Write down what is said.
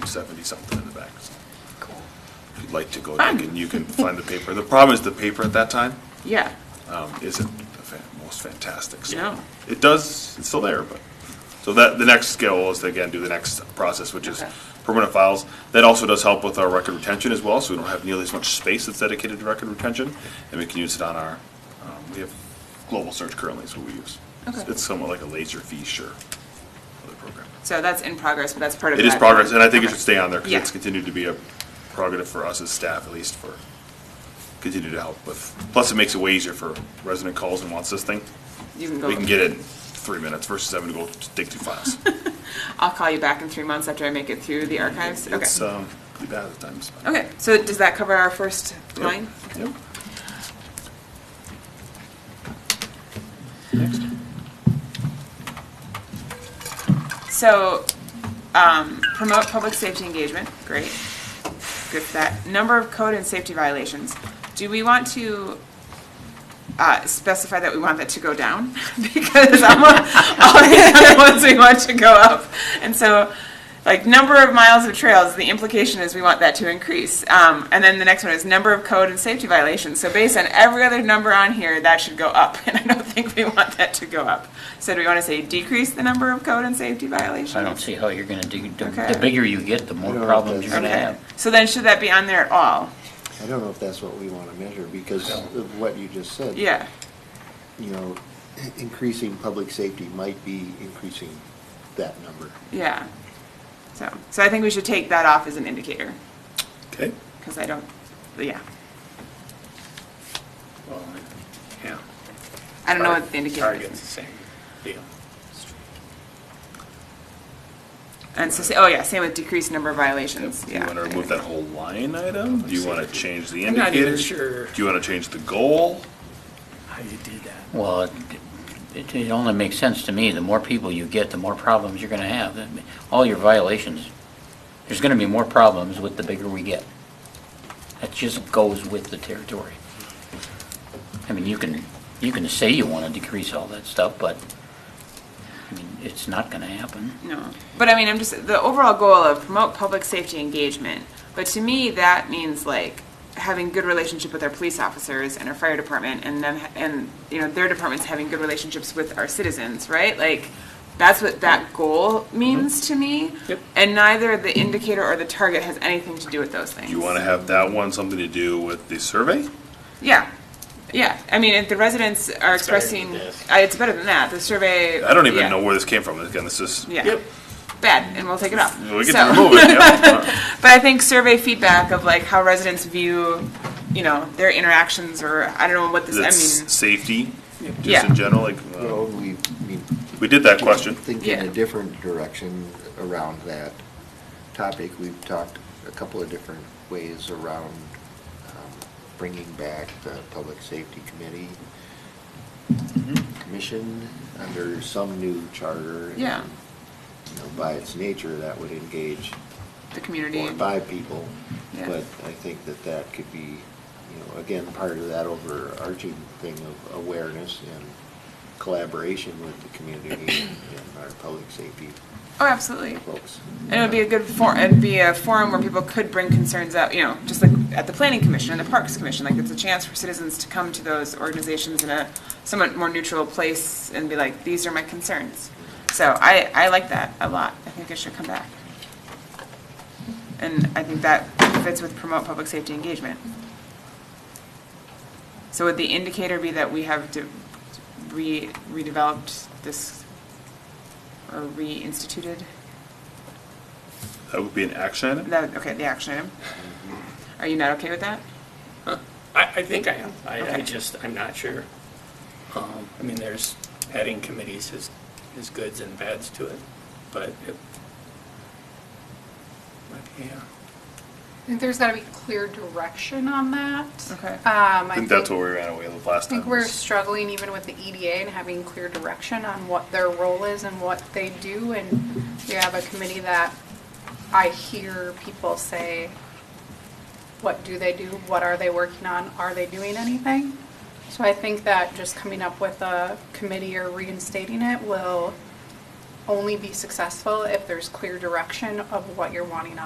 1870 something in the back. If you'd like to go, you can, you can find the paper. The problem is the paper at that time Yeah, um, isn't the fan- most fantastic. So No. It does, it's still there, but, so that, the next skill is to again do the next process, which is Okay. permanent files. That also does help with our record retention as well, so we don't have nearly as much space that's dedicated to record retention. And we can use it on our, um, we have global search currently is what we use. Okay. It's somewhat like a laser feature of the program. so that's in progress, but that's part of It is that- progress, and I think it Okay. should stay on there, because Yeah. it's continued to be a prerogative for us as staff, at least for, continue to help with. Plus, it makes it way easier for resident calls and wants this thing. You can go. We can get it in three minutes versus having to go dig through files. I'll call you back in three months after I make it through the archives. Okay. It's, um, pretty bad at times. Okay, so does that cover our first Yep. line? Yep. So, um, promote public safety engagement, great. Good for that. Number of code and safety violations. Do we want to, uh, specify that we want that to go down? Because I'm, all these other ones we want to go up. And so, like, number of miles of trails, the implication is we want that to increase. Um, and then the next one is number of code and safety violations. So based on every other number on here, that should go up. And I don't think we want that to go up. So do we want to say decrease the number of code and safety violations? I don't see how you're gonna do, the- Okay. the bigger you get, the more I don't know if problems you're that's- gonna Okay, have. so then should that be on there at all? I don't know if that's what we want to measure because of what you just said. Yeah, You know, increasing public safety might be increasing that number. yeah. So, so I think we should take that off as an indicator, Okay. because I don't, yeah. Well, yeah. I don't know what the indicator Target's the is. same deal. And so, say- oh yeah, same with decreased number of violations, Do you yeah. want to remove that whole line item? Do you want to change the I'm not even indicator? sure Do you want to change the goal? how you do that. Well, it- it, it only makes sense to me, the more people you get, the more problems you're gonna have. All your violations, there's gonna be more problems with the bigger we get. That just goes with the territory. I mean, you can, you can say you wanna decrease all that stuff, but, I mean, it's not gonna happen. No, but I mean, I'm just, the overall goal of promote public safety engagement, but to me, that means like having good relationship with our police officers and our fire department and them, and, you know, their departments having good relationships with our citizens, right? Like, that's what that goal means to me. Yep. And neither the indicator or the target has anything to do with those things. Do you want to have that one something to do with the survey? Yeah, yeah, I mean, if the residents are expressing, this. I- it's better than that, the survey. I don't even yeah. know where this came from. Again, this is. Yeah, bad, and we'll take it off. We So- can remove it, yeah. But I think survey feedback of like how residents view, you know, their interactions or I don't know what this. That's I mean, safety, just Yeah. in general, like, uh, Well, we, I mean, we did that question. think in Yeah. a different direction around that topic. We've talked a couple of different ways around um, bringing back the Public Safety Committee, Mm-hmm. Commission, under some new charter. and, Yeah. You know, by its nature, that would engage the community. four or five people. Yeah. But I think that that could be, you know, again, part of that overarching thing of awareness and collaboration with the community and our public safety Oh, absolutely. folks. And it would be a good forum. It'd be a forum where people could bring concerns up. You know, just like at the Planning Commission and the Parks Commission. Like it's a chance for citizens to come to those organizations in a somewhat more neutral place and be like, these are my concerns. So I I like that a lot. I think it should come back. And I think that fits with promote public safety engagement. So would the indicator be that we have de- re- redeveloped this or reinstituted? That would be an action item. That, okay, the action item. Are you not okay with that? I, I think I am. I, I Okay. just, I'm not sure. Um, I mean, there's adding committees is, is goods and bads to it, but it. but, Yeah, I think there's got to be clear direction on that. Okay. Um, I I think think, that's what we ran away with last I time. think we're was- struggling even with the EDA and having clear direction on what their role is and what they do. And we have a committee that I hear people say, what do they do? What are they working on? Are they doing anything? So I think that just coming up with a committee or reinstating it will only be successful if there's clear direction of what you're wanting